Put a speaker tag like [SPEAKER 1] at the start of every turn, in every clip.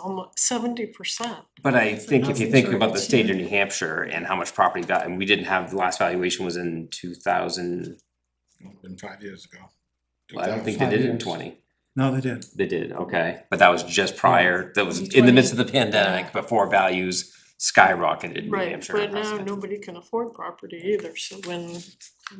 [SPEAKER 1] almost seventy percent.
[SPEAKER 2] But I think if you think
[SPEAKER 1] Housing
[SPEAKER 2] about the
[SPEAKER 1] shortage,
[SPEAKER 2] state of New Hampshire and how much property value, and we didn't have, the last valuation was in two thousand,
[SPEAKER 3] Been five years ago.
[SPEAKER 2] I don't think they did it in twenty.
[SPEAKER 4] No, they did.
[SPEAKER 2] They did, okay, but that was just prior, that was in the midst of the pandemic, before values skyrocketed in New
[SPEAKER 1] Right,
[SPEAKER 2] Hampshire.
[SPEAKER 1] but now nobody can afford property either, so when.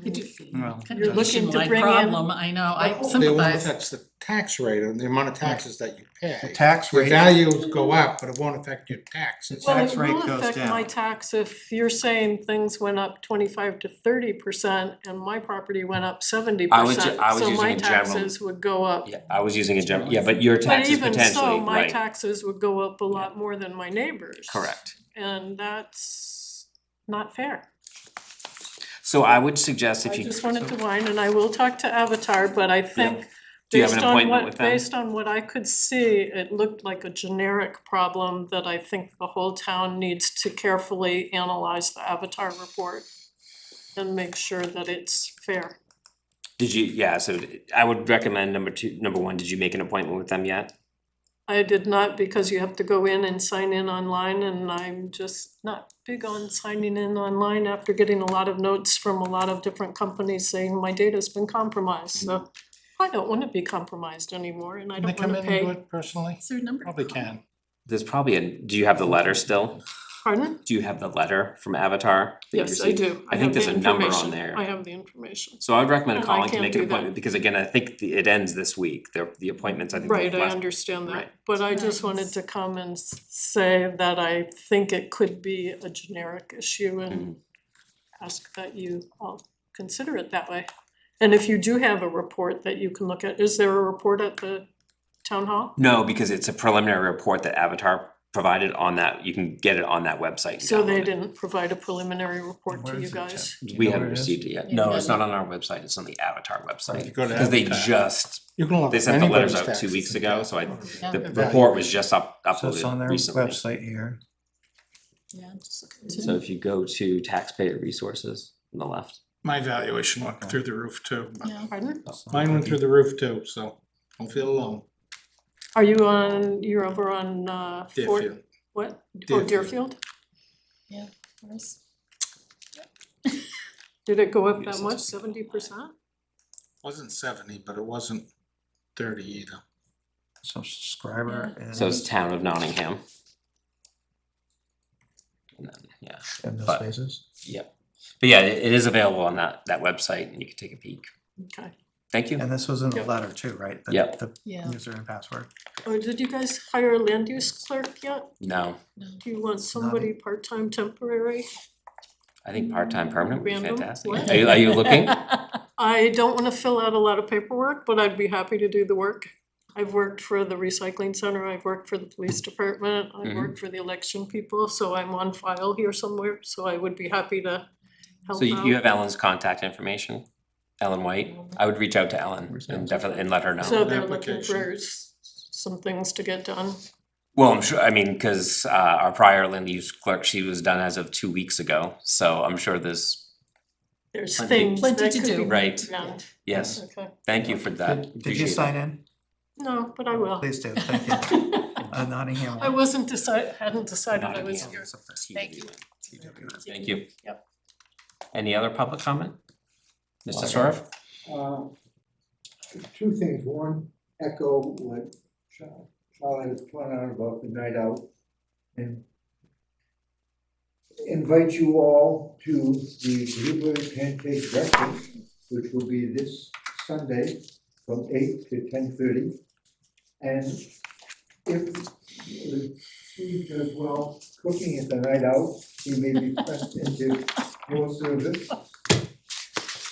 [SPEAKER 5] It do-
[SPEAKER 4] Well,
[SPEAKER 5] Kind
[SPEAKER 1] You're
[SPEAKER 5] of
[SPEAKER 1] looking to
[SPEAKER 5] nationwide
[SPEAKER 1] bring in-
[SPEAKER 5] problem, I know, I
[SPEAKER 3] They won't
[SPEAKER 5] sympathize.
[SPEAKER 3] affect the tax rate and the amount of taxes that you
[SPEAKER 4] the
[SPEAKER 3] pay.
[SPEAKER 4] tax
[SPEAKER 3] Your
[SPEAKER 4] rate,
[SPEAKER 3] values go up, but it won't affect your taxes.
[SPEAKER 4] Well, tax rate
[SPEAKER 1] Well, it
[SPEAKER 4] goes
[SPEAKER 1] will affect my
[SPEAKER 4] down.
[SPEAKER 1] tax if you're saying things went up twenty-five to thirty percent and my property went up seventy
[SPEAKER 2] I was ju-
[SPEAKER 1] percent.
[SPEAKER 2] I was
[SPEAKER 1] So
[SPEAKER 2] using
[SPEAKER 1] my
[SPEAKER 2] a general-
[SPEAKER 1] taxes would go up.
[SPEAKER 2] Yeah, I was using a general, yeah, but your
[SPEAKER 1] But
[SPEAKER 2] taxes
[SPEAKER 1] even so,
[SPEAKER 2] potentially,
[SPEAKER 1] my
[SPEAKER 2] right,
[SPEAKER 1] taxes would go up a lot more than my neighbors.
[SPEAKER 2] correct.
[SPEAKER 1] And that's not fair.
[SPEAKER 2] So I would suggest if
[SPEAKER 1] I
[SPEAKER 2] you.
[SPEAKER 1] just wanted to whine, and I will talk to Avatar, but I think
[SPEAKER 2] Do you have
[SPEAKER 1] based
[SPEAKER 2] an
[SPEAKER 1] on
[SPEAKER 2] appointment
[SPEAKER 1] what,
[SPEAKER 2] with them?
[SPEAKER 1] based on what I could see, it looked like a generic problem that I think the whole town needs to carefully analyze the Avatar report and make sure that it's fair.
[SPEAKER 2] Did you, yeah, so d- I would recommend number two, number one, did you make an appointment with them yet?
[SPEAKER 1] I did not, because you have to go in and sign in online, and I'm just not big on signing in online after getting a lot of notes from a lot of different companies saying my data's been compromised, so I don't wanna be compromised anymore, and I
[SPEAKER 3] Can they
[SPEAKER 1] don't
[SPEAKER 3] come
[SPEAKER 1] wanna
[SPEAKER 3] in and do
[SPEAKER 1] pay,
[SPEAKER 3] it personally?
[SPEAKER 5] Is there a number?
[SPEAKER 3] Probably can.
[SPEAKER 2] There's probably a, do you have the letter still?
[SPEAKER 1] pardon?
[SPEAKER 2] Do you have the letter from Avatar? that you
[SPEAKER 1] Yes, I
[SPEAKER 2] received?
[SPEAKER 1] do.
[SPEAKER 2] I
[SPEAKER 1] have
[SPEAKER 2] think
[SPEAKER 1] the
[SPEAKER 2] there's a number on
[SPEAKER 1] information.
[SPEAKER 2] there.
[SPEAKER 1] I have the information.
[SPEAKER 2] So I would recommend
[SPEAKER 1] Oh, I
[SPEAKER 2] calling to
[SPEAKER 1] can't
[SPEAKER 2] make an
[SPEAKER 1] do that.
[SPEAKER 2] appointment, because again, I think the, it ends this week, the, the appointments, I think.
[SPEAKER 1] Right, I
[SPEAKER 2] last-
[SPEAKER 1] understand that,
[SPEAKER 2] right.
[SPEAKER 1] but I just wanted to come and s- say that I think it could be a generic issue and ask that you all consider it that way. And if you do have a report that you can look at, is there a report at the town hall?
[SPEAKER 2] No, because it's a preliminary report that Avatar provided on that, you can get it on that website. and
[SPEAKER 1] So they
[SPEAKER 2] download it.
[SPEAKER 1] didn't provide a preliminary report
[SPEAKER 4] Where
[SPEAKER 1] to you
[SPEAKER 4] is it, Tim?
[SPEAKER 1] guys?
[SPEAKER 4] Do you
[SPEAKER 2] We
[SPEAKER 4] know
[SPEAKER 2] haven't
[SPEAKER 4] where it is?
[SPEAKER 2] received it yet.
[SPEAKER 5] Yeah,
[SPEAKER 2] No,
[SPEAKER 5] it
[SPEAKER 2] it's not on our website, it's on the Avatar website.
[SPEAKER 3] you go to
[SPEAKER 2] Because they
[SPEAKER 3] Avatar.
[SPEAKER 2] just,
[SPEAKER 3] You can look
[SPEAKER 2] they
[SPEAKER 3] up
[SPEAKER 2] sent the letters
[SPEAKER 3] anybody's
[SPEAKER 2] out two
[SPEAKER 3] taxes
[SPEAKER 2] weeks
[SPEAKER 3] and
[SPEAKER 2] ago,
[SPEAKER 3] tax-
[SPEAKER 2] so I,
[SPEAKER 5] Yeah.
[SPEAKER 2] the report was just up,
[SPEAKER 4] So it's
[SPEAKER 2] uploaded
[SPEAKER 4] on their
[SPEAKER 2] recently.
[SPEAKER 4] website here.
[SPEAKER 5] Yeah, just look at
[SPEAKER 2] So
[SPEAKER 5] two.
[SPEAKER 2] if you go to taxpayer resources on the left.
[SPEAKER 6] My valuation went through the roof too. but-
[SPEAKER 5] Yeah.
[SPEAKER 1] Pardon?
[SPEAKER 2] Oh.
[SPEAKER 3] Mine went through the roof too, so don't feel alone.
[SPEAKER 1] Are you on, you're over on uh Fort-
[SPEAKER 3] Deerfield.
[SPEAKER 1] What? Oh,
[SPEAKER 3] Deerfield.
[SPEAKER 1] Deerfield?
[SPEAKER 5] Where's-
[SPEAKER 1] Did it go up
[SPEAKER 2] Yes,
[SPEAKER 1] that
[SPEAKER 2] it's
[SPEAKER 1] much,
[SPEAKER 2] pretty
[SPEAKER 1] seventy percent?
[SPEAKER 3] Wasn't seventy, but it wasn't thirty either.
[SPEAKER 4] So subscriber and.
[SPEAKER 2] So it's town of Nottingham. And then, yeah,
[SPEAKER 4] and no
[SPEAKER 2] but-
[SPEAKER 4] spaces.
[SPEAKER 2] yep. But yeah, it it is available on that, that website and you can take a peek.
[SPEAKER 1] Okay.
[SPEAKER 2] Thank you.
[SPEAKER 4] And this was in the
[SPEAKER 1] Yep.
[SPEAKER 4] letter too, right? The-
[SPEAKER 2] Yep.
[SPEAKER 4] The
[SPEAKER 5] Yeah,
[SPEAKER 4] user and password.
[SPEAKER 1] Or did you guys hire a land use clerk yet?
[SPEAKER 2] No,
[SPEAKER 1] Do you want somebody part-time temporary?
[SPEAKER 2] I think part-time permanent would be
[SPEAKER 1] Random?
[SPEAKER 2] fantastic.
[SPEAKER 1] What?
[SPEAKER 2] Are you, are you looking?
[SPEAKER 1] I don't wanna fill out a lot of paperwork, but I'd be happy to do the work. I've worked for the recycling center, I've worked for the police department, I've
[SPEAKER 2] Mhm.
[SPEAKER 1] worked for the election people, so I'm on file here somewhere, so I would be happy to help
[SPEAKER 2] So you you
[SPEAKER 1] out.
[SPEAKER 2] have Ellen's contact information? Ellen White? I would reach out to Ellen
[SPEAKER 4] Where's
[SPEAKER 2] and
[SPEAKER 4] Ellen's
[SPEAKER 2] definitely, and let her know.
[SPEAKER 1] So they're looking
[SPEAKER 3] Application.
[SPEAKER 1] for s- some things to get done.
[SPEAKER 2] Well, I'm sure, I mean, cause uh our prior land use clerk, she was done as of two weeks ago, so I'm sure this,
[SPEAKER 1] There's
[SPEAKER 2] Plenty-
[SPEAKER 1] things that
[SPEAKER 5] Plenty
[SPEAKER 1] could
[SPEAKER 5] to
[SPEAKER 1] be
[SPEAKER 5] do.
[SPEAKER 2] Right.
[SPEAKER 1] done.
[SPEAKER 2] yes,
[SPEAKER 1] Okay,
[SPEAKER 2] thank you for that.
[SPEAKER 4] Did did you
[SPEAKER 2] Appreciate it.
[SPEAKER 4] sign in?
[SPEAKER 1] no, but I will.
[SPEAKER 4] Please do, thank you. Uh, Nottingham.
[SPEAKER 1] I wasn't decide, hadn't decided I was
[SPEAKER 2] Nottingham.
[SPEAKER 1] here.
[SPEAKER 5] Thank you.
[SPEAKER 2] Thank you. Yep. Any other public comment? Mr. Sorf?
[SPEAKER 7] Uh, Two things, one, echo what Char- Charlie was pointing out about the night out. And invite you all to the Blueberry Pancake Breakfast, which will be this Sunday from eight to ten thirty. And if Steve does well cooking at the night out, he may be pressed into more service.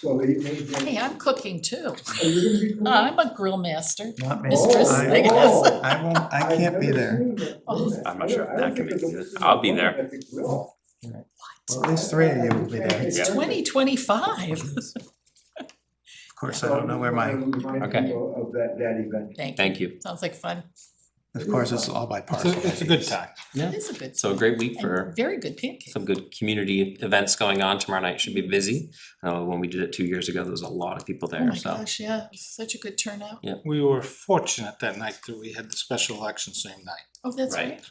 [SPEAKER 7] So he may. get-
[SPEAKER 5] Hey, I'm cooking too. Uh,
[SPEAKER 7] Are you gonna be cooking?
[SPEAKER 5] I'm a grill master.
[SPEAKER 4] Not me.
[SPEAKER 5] Mistress,
[SPEAKER 4] Oh, I-
[SPEAKER 5] I guess.
[SPEAKER 4] I won't, I
[SPEAKER 7] I've
[SPEAKER 4] can't be
[SPEAKER 7] never
[SPEAKER 4] there.
[SPEAKER 7] seen that.
[SPEAKER 5] Oh.
[SPEAKER 2] I'm not sure if
[SPEAKER 7] I don't- I
[SPEAKER 2] that
[SPEAKER 7] don't
[SPEAKER 2] can
[SPEAKER 7] think
[SPEAKER 2] make
[SPEAKER 7] I've
[SPEAKER 2] it.
[SPEAKER 7] seen
[SPEAKER 2] I'll
[SPEAKER 7] a
[SPEAKER 2] be there.
[SPEAKER 7] woman at the grill.
[SPEAKER 4] Well, at least three of you will be there.
[SPEAKER 7] It's
[SPEAKER 2] Yeah.
[SPEAKER 5] Twenty twenty-five.
[SPEAKER 4] Of course, I don't know where my,
[SPEAKER 7] Remind
[SPEAKER 2] Okay.
[SPEAKER 7] people Of that, that event.
[SPEAKER 5] Thank you.
[SPEAKER 2] Thank you.
[SPEAKER 5] Sounds like fun.
[SPEAKER 4] Of course, it's all by
[SPEAKER 3] It's
[SPEAKER 4] parcel.
[SPEAKER 3] a, it's a good time.
[SPEAKER 5] It is a good.
[SPEAKER 2] So a great week
[SPEAKER 5] and
[SPEAKER 2] for
[SPEAKER 5] Very good pancake.
[SPEAKER 2] some good community events going on. Tomorrow night should be busy. Uh, when we did it two years ago, there was a lot of people
[SPEAKER 5] Oh
[SPEAKER 2] there,
[SPEAKER 5] my
[SPEAKER 2] so.
[SPEAKER 5] gosh, yeah, it was such a good turnout.
[SPEAKER 2] Yeah.
[SPEAKER 3] We were fortunate that night that we had the special election same night.
[SPEAKER 5] Oh, that's
[SPEAKER 2] Right.
[SPEAKER 5] right.